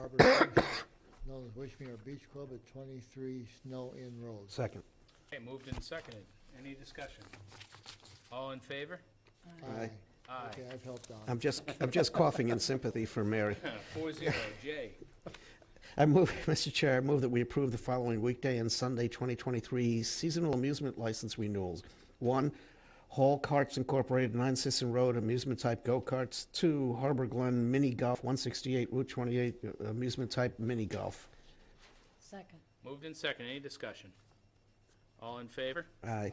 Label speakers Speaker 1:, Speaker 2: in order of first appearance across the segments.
Speaker 1: Robert Sisson, known as Wishmere Beach Club at 23 Snow Inn Road.
Speaker 2: Second.
Speaker 3: Okay, moved and seconded. Any discussion? All in favor?
Speaker 2: Aye.
Speaker 3: Aye.
Speaker 1: Okay, I've helped out.
Speaker 2: I'm just, I'm just coughing in sympathy for Mary.
Speaker 3: Four zero. Jay,
Speaker 2: I move, Mr. Chair, I move that we approve the following weekday and Sunday 2023 seasonal amusement license renewals. One, Hall Carts Incorporated, 9 Sisson Road, amusement-type go-karts. Two, Harbor Glen Mini Golf, 168 Route 28, uh, amusement-type mini golf.
Speaker 4: Second.
Speaker 3: moved and seconded. Any discussion? All in favor?
Speaker 1: Aye.
Speaker 2: Aye.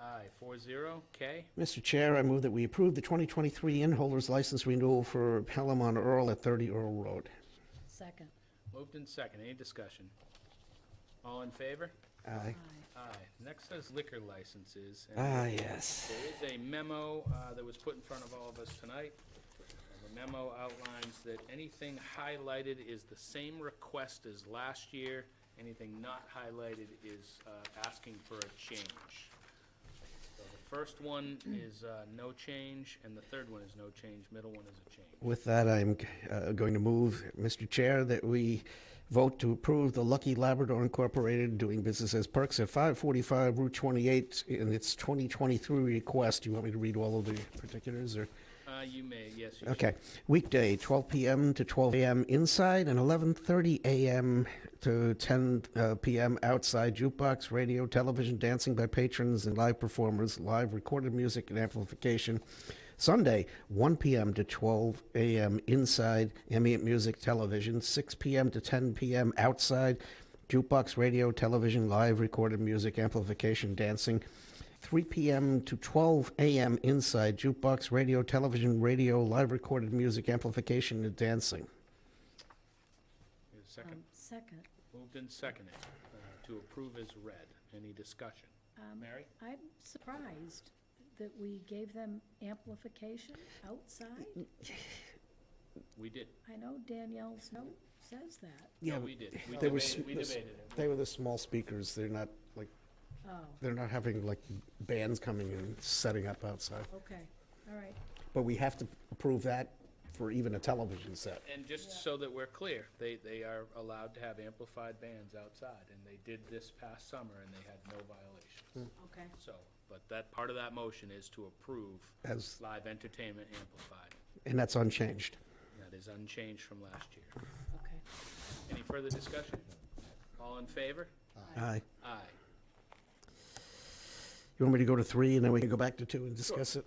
Speaker 3: Aye, four zero. K,
Speaker 2: Mr. Chair, I move that we approve the 2023 inn holders license renewal for Pelham on Earl at 30 Earl Road.
Speaker 4: Second.
Speaker 3: moved and seconded. Any discussion? All in favor?
Speaker 2: Aye.
Speaker 3: Aye. Next is liquor licenses. and
Speaker 2: Ah, yes.
Speaker 3: There is a memo uh, that was put in front of all of us tonight. The memo outlines that anything highlighted is the same request as last year. Anything not highlighted is uh, asking for a change. So the first one is uh, no change, and the third one is no change, middle one is a change.
Speaker 2: With that, I'm uh, going to move, Mr. Chair, that we vote to approve the Lucky Labrador Incorporated doing business as Perks at 545 Route 28 in its 2023 request. Do you want me to read all of the particulars or?
Speaker 3: Uh, You may, yes, you should.
Speaker 2: Okay, weekday, 12 PM to 12 AM inside and 11:30 AM to 10 uh, PM outside. Jukebox, radio, television, dancing by patrons and live performers, live recorded music and amplification. Sunday, 1 PM to 12 AM inside, ambient music, television, 6 PM to 10 PM outside. Jukebox, radio, television, live recorded music, amplification, dancing. 3 p.m. to 12 a.m. inside jukebox, radio, television, radio, live recorded music, amplification, and dancing.
Speaker 3: Is there a Second,
Speaker 4: Um, Second.
Speaker 3: moved and seconded uh, to approve as read. Any discussion?
Speaker 4: Um,
Speaker 3: Mary?
Speaker 4: I'm surprised that we gave them amplification outside.
Speaker 3: We did.
Speaker 4: I know Danielle's note says that.
Speaker 3: Yeah, we did. We
Speaker 2: They were
Speaker 3: debated,
Speaker 2: s-
Speaker 3: we
Speaker 2: this-
Speaker 3: debated it.
Speaker 2: They were the small speakers. They're not like
Speaker 4: Oh,
Speaker 2: they're not having like bands coming and setting up outside.
Speaker 4: okay, all right.
Speaker 2: But we have to approve that for even a television set.
Speaker 3: And just so that we're clear, they, they are allowed to have amplified bands outside, and they did this past summer, and they had no violations.
Speaker 4: Okay.
Speaker 3: So, but that, part of that motion is to approve
Speaker 2: As-
Speaker 3: live entertainment amplified.
Speaker 2: And that's unchanged.
Speaker 3: That is unchanged from last year.
Speaker 4: Okay.
Speaker 3: Any further discussion? All in favor?
Speaker 2: Aye.
Speaker 3: Aye.
Speaker 2: You want me to go to three, and then we can go back to two and discuss it?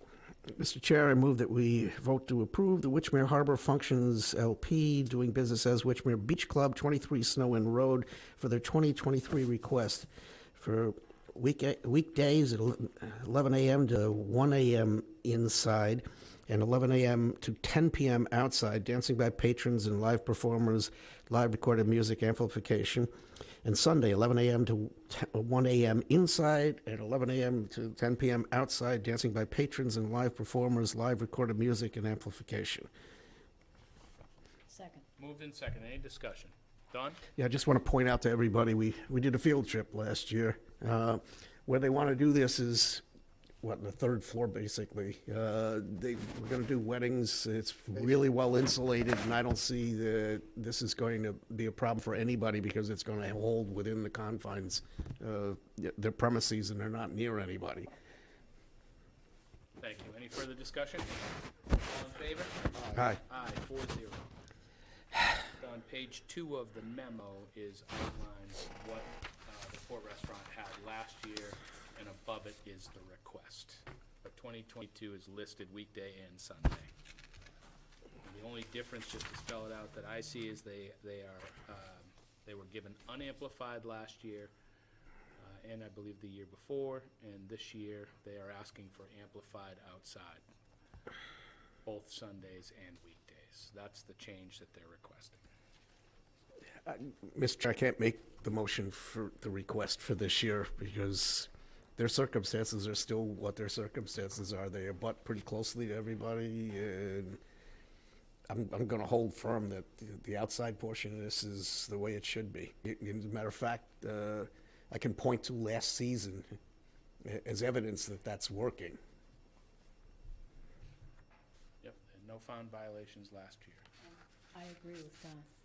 Speaker 2: Mr. Chair, I move that we vote to approve the Witchmere Harbor Functions LP doing business as Witchmere Beach Club, 23 Snow Inn Road, for their 2023 request for week weekdays at 11 a.m. to 1 a.m. inside and 11 a.m. to 10 p.m. outside, dancing by patrons and live performers, live recorded music amplification. And Sunday, 11 a.m. to 10 uh, 1 a.m. inside, and 11 a.m. to 10 p.m. outside, dancing by patrons and live performers, live recorded music and amplification.
Speaker 4: Second.
Speaker 3: Moved and second. Any discussion? Done?
Speaker 2: Yeah, I just want to point out to everybody, we, we did a field trip last year. Uh, where they want to do this is, what, the third floor, basically. Uh, they, we're going to do weddings. It's really well insulated, and I don't see that this is going to be a problem for anybody because it's going to hold within the confines of their premises, and they're not near anybody.
Speaker 3: Thank you. Any further discussion? All in favor?
Speaker 2: Hi.
Speaker 3: Aye, four zero. On page two of the memo is outlined what uh, the Port Restaurant had last year, and above it is the request. But 2022 is listed weekday and Sunday. And The only difference, just to spell it out, that I see is they, they are, um, they were given unamplified last year, uh, and I believe the year before, and this year, they are asking for amplified outside both Sundays and weekdays. That's the change that they're requesting.
Speaker 2: Mr. I can't make the motion for the request for this year because their circumstances are still what their circumstances are. They abut pretty closely to everybody and I'm, I'm going to hold firm that the- the outside portion of this is the way it should be. Y- y- As a matter of fact, uh, I can point to last season a- as evidence that that's working.
Speaker 3: Yep. And no found violations last year.
Speaker 4: I agree with Don.